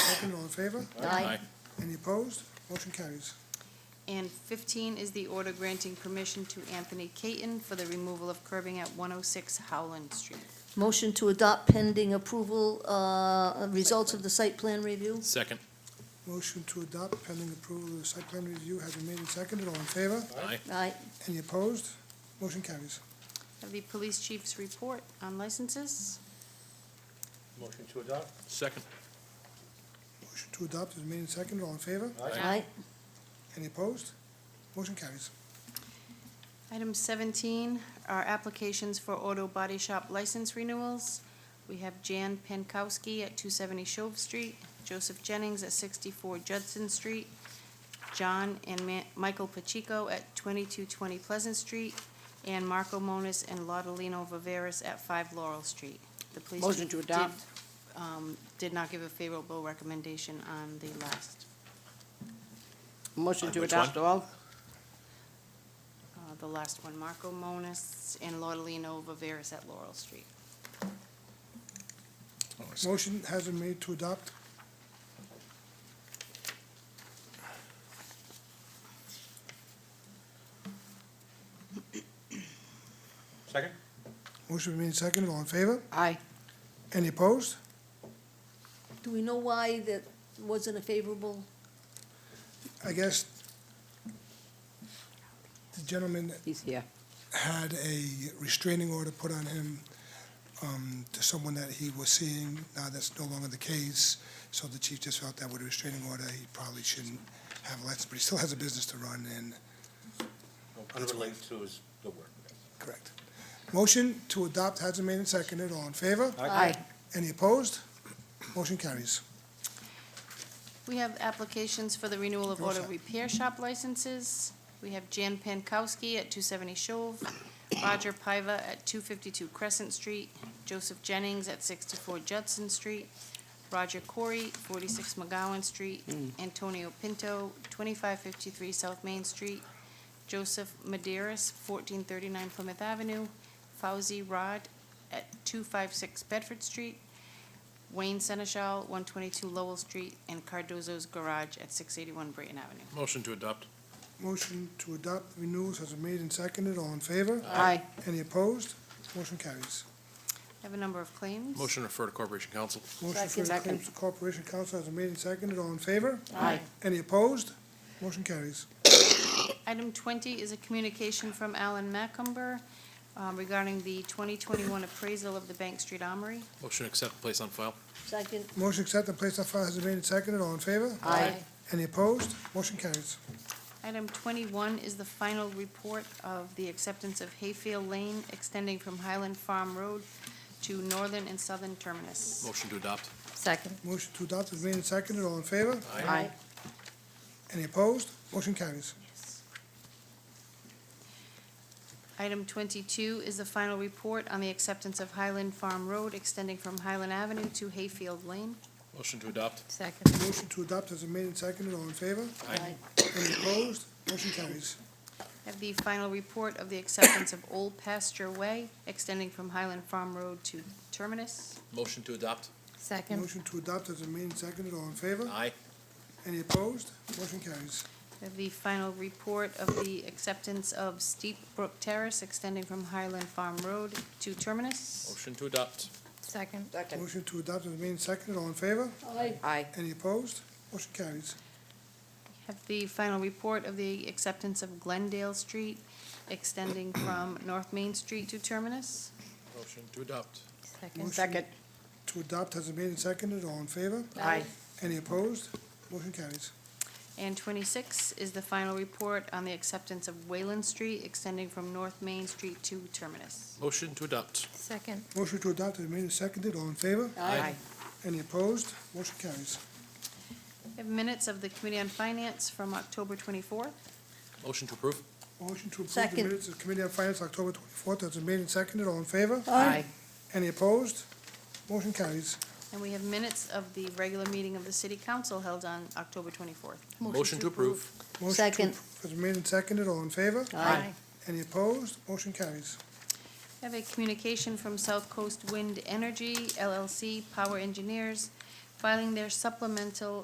Second, all in favor? Aye. Any opposed? Motion carries. And 15 is the order granting permission to Anthony Caton for the removal of curbing at 106 Howland Street. Motion to adopt pending approval, uh, results of the site plan review? Second. Motion to adopt pending approval of the site plan review has been made and seconded. All in favor? Aye. Aye. Any opposed? Motion carries. Have the police chief's report on licenses. Motion to adopt? Second. Motion to adopt is made and seconded. All in favor? Aye. Any opposed? Motion carries. Item 17 are applications for auto body shop license renewals. We have Jan Pankowski at 270 Shove Street, Joseph Jennings at 64 Judson Street, John and Ma- Michael Pacheco at 2220 Pleasant Street, and Marco Monas and Laudelino Viveras at 5 Laurel Street. The police Motion to did- adopt. um, Did not give a favorable recommendation on the last, Motion On to which one? adopt all? uh, the last one, Marco Monas and Laudelino Viveras at Laurel Street. Motion has been made to adopt. Second? Motion been made and seconded. All in favor? Aye. Any opposed? Do we know why that wasn't a favorable? I guess the gentleman He's here. had a restraining order put on him um, to someone that he was seeing. Now, that's no longer the case, so the chief just felt that with a restraining order, he probably shouldn't have a license, but he still has a business to run, and, Unrelated to his, the work. correct. Motion to adopt has been made and seconded. All in favor? Aye. Any opposed? Motion carries. We have applications for the renewal of Go auto ahead. repair shop licenses. We have Jan Pankowski at 270 Shove, Roger Piva at 252 Crescent Street, Joseph Jennings at 64 Judson Street, Roger Corey, 46 McGowan Street, Antonio Pinto, 2553 South Main Street, Joseph Maderis, 1439 Plymouth Avenue, Fauzi Rod at 256 Bedford Street, Wayne Seneschal, 122 Lowell Street, and Cardozo's Garage at 681 Brayton Avenue. Motion to adopt. Motion to adopt renewals has been made and seconded. All in favor? Aye. Any opposed? Motion carries. I Have a number of claims. Motion to refer to Corporation Council. Motion for the Second. claims to Corporation Council has been made and seconded. All in favor? Aye. Any opposed? Motion carries. Item 20 is a communication from Alan Macumber um, regarding the 2021 appraisal of the Bank Street Armory. Motion to accept and place on file. Second? Motion accept and place on file has been made and seconded. All in favor? Aye. Any opposed? Motion carries. Item 21 is the final report of the acceptance of Hayfield Lane extending from Highland Farm Road to northern and southern terminus. Motion to adopt. Second. Motion to adopt is made and seconded. All in favor? Aye. Any opposed? Motion carries. Item 22 is the final report on the acceptance of Highland Farm Road extending from Highland Avenue to Hayfield Lane. Motion to adopt. Second. Motion to adopt has been made and seconded. All in favor? Aye. Any opposed? Motion carries. Have the final report of the acceptance of Old Pasture Way extending from Highland Farm Road to Terminus. Motion to adopt. Second. Motion to adopt has been made and seconded. All in favor? Aye. Any opposed? Motion carries. Have the final report of the acceptance of Steep Brook Terrace extending from Highland Farm Road to Terminus. Motion to adopt. Second. Second. Motion to adopt has been made and seconded. All in favor? Aye. Aye. Any opposed? Motion carries. Have the final report of the acceptance of Glendale Street extending from North Main Street to Terminus. Motion to adopt. Motion. Second. Second. To adopt has been made and seconded. All in favor? Aye. Any opposed? Motion carries. And 26 is the final report on the acceptance of Wayland Street extending from North Main Street to Terminus. Motion to adopt. Second. Motion to adopt has been made and seconded. All in favor? Aye. Any opposed? Motion carries. We have minutes of the Committee on Finance from October 24th. Motion to approve. Motion to approve the Second. minutes of Committee on Finance, October twenty-fourth, has been made and seconded. All in favor? Aye. Any opposed? Motion carries. And we have minutes of the regular meeting of the City Council held on October 24th. Motion to approve. Motion to Second. approve Has been made and seconded. All in favor? Aye. Any opposed? Motion carries. We have a communication from South Coast Wind Energy LLC Power Engineers filing their supplemental